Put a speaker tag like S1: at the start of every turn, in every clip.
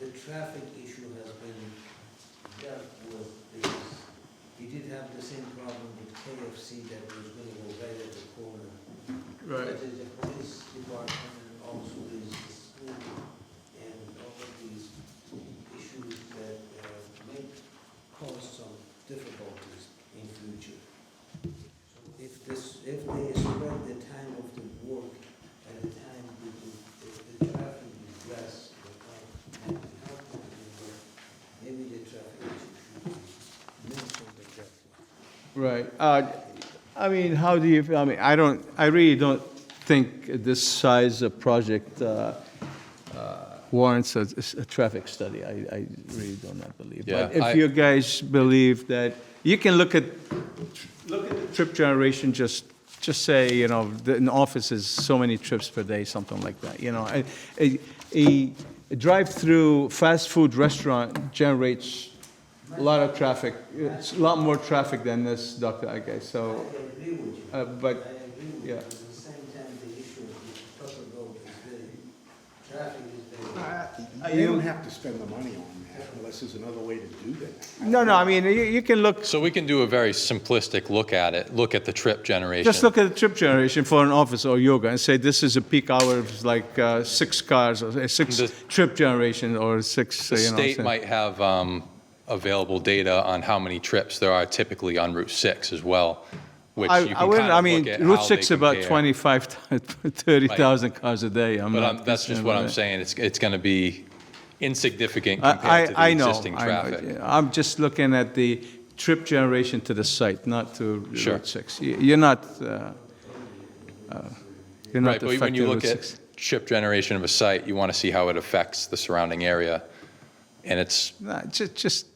S1: traffic issue has been dealt with, because we did have the same problem with KFC that was gonna go right at the corner.
S2: Right,
S1: But the the police department and also is the school and all of these issues that uh, may cause some difficulties in future. So If this, if they spread the time of the work at a time when the, if the traffic is less, the time might be helpful, but maybe the traffic issue should be minimum at that point.
S2: right. Uh, I mean, how do you, I mean, I don't, I really don't think this size of project uh, uh, warrants a, a traffic study. I, I really do not believe.
S3: Yeah,
S2: But
S3: I-
S2: if you guys believe that, you can look at, look at the trip generation, just, just say, you know, the- an office is so many trips per day, something like that, you know. A- A, a drive-through fast food restaurant generates a lot of traffic, it's a lot more traffic than this, Dr. Agay,
S1: I
S2: so,
S1: agree with you.
S2: uh,
S1: I
S2: but,
S1: agree with you,
S2: yeah.
S1: but at the same time, the issue of the proper road is very, traffic is very.
S4: You don't have to spend the money on that unless there's another way to do that.
S2: no, no, I mean, you, you can look,
S3: So we can do a very simplistic look at it, look at the trip generation.
S2: just look at the trip generation for an office or yoga and say, this is a peak hour of like uh, six cars, or uh, six
S3: The-
S2: trip generation, or six, uh,
S3: The
S2: you know. what I'm
S3: state
S2: saying.
S3: might have um, available data on how many trips there are typically on Route 6 as well, which
S2: I,
S3: you can
S2: I wouldn't,
S3: kind
S2: I
S3: of
S2: mean,
S3: look at
S2: Route
S3: how they
S2: 6 about
S3: compare.
S2: 25, 30,000 cars a day. I'm
S3: But
S2: not
S3: um, that's just
S2: concerned
S3: what
S2: with
S3: I'm
S2: that.
S3: saying, it's, it's going to be insignificant
S2: I,
S3: compared to
S2: I,
S3: the
S2: I know.
S3: existing
S2: I know.
S3: traffic.
S2: I'm just looking at the trip generation to the site, not to
S3: Sure.
S2: Route 6. You- You're not, uh, uh, you're
S3: Right,
S2: not
S3: but when
S2: affecting
S3: you look
S2: Route
S3: at
S2: 6.
S3: trip generation of a site, you want to see how it affects the surrounding area. And it's,
S2: Nah, ju- Just,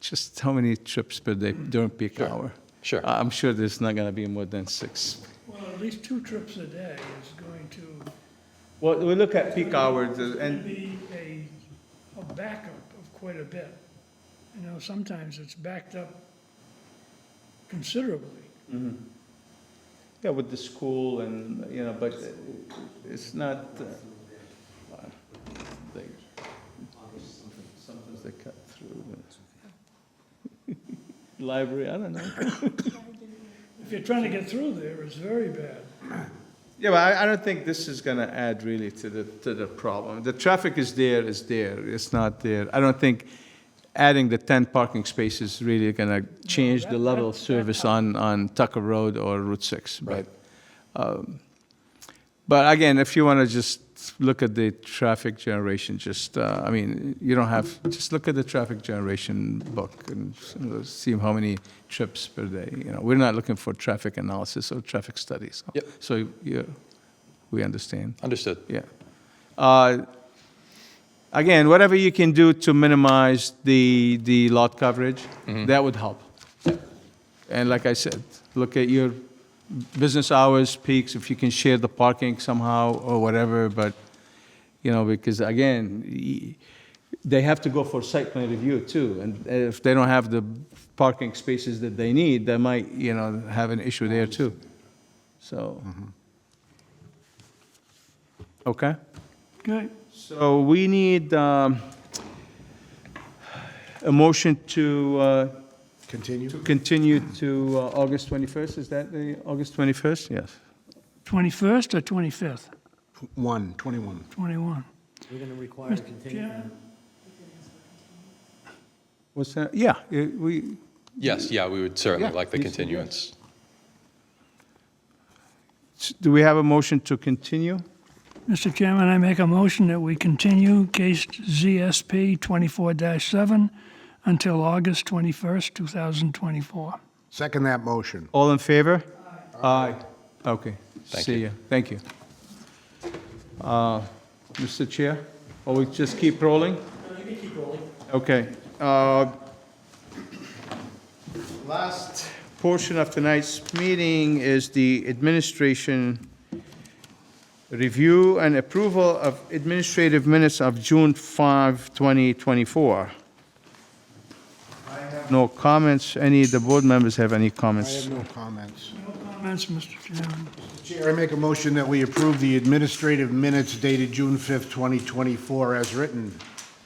S2: just how many trips per day during peak
S3: Sure.
S2: hour?
S3: Sure.
S2: I- I'm sure there's not going to be more than six.
S5: Well, at least two trips a day is going to
S2: Well, we look at peak hours
S5: be a, a backup of quite a bit. You know, sometimes it's backed up considerably.
S2: Yeah, with the school and, you know, but it's not. uh, they- Sometimes they cut through. the- Library, I don't know.
S5: If you're trying to get through there, it's very bad.
S2: Yeah, but I, I don't think this is gonna add really to the, to the problem. The traffic is there, is there, it's not there. I don't think adding the ten parking spaces really gonna change the
S5: that-
S2: level of
S5: that-
S2: service on, on Tucker Road or Route Six, but.
S3: Right.
S2: um, But again, if you wanna just look at the traffic generation, just, uh, I mean, you don't have, just look at the traffic generation book and s- see how many trips per day, you know. We're not looking for traffic analysis or traffic studies.
S3: Yep.
S2: So, yeah, we understand,
S3: understood.
S2: yeah. Uh, Again, whatever you can do to minimize the, the lot coverage, that would help. And like I said, look at your business hours, peaks, if you can share the parking somehow or whatever, but, you know, because again, y- they have to go for site plan review too, and if they don't have the parking spaces that they need, they might, you know, have an issue there too. So. Okay?
S5: Okay.
S2: So we need um, a motion to uh,
S4: Continue?
S2: continue to uh, August 21st, is that the, August 21st? Yes.
S5: 21st or 25th?
S4: One, 21.
S5: 21.
S1: We're gonna require
S5: Chairman?
S2: What's that? Yeah, eh, we,
S3: Yes, yeah, we would certainly
S2: Yeah,
S3: like the
S2: yes, yes.
S3: continuance.
S2: do we have a motion to continue?
S5: Mr. Chairman, I make a motion that we continue case ZSP 24-7 until August 21st, 2024.
S4: Second that motion.
S2: All in favor? Aye. Okay,
S3: Thank
S2: see
S3: you.
S2: you, thank you. Uh, Mr. Chair, or we just keep rolling? You can keep rolling. Okay. uh, Last portion of tonight's meeting is the administration review and approval of administrative minutes of June 5, 2024. No comments, any, the board members have any
S4: I
S2: comments?
S4: have no comments.
S5: No comments, Mr. Chairman.
S4: Chair, I make a motion that we approve the administrative minutes dated June 5th, 2024, as written.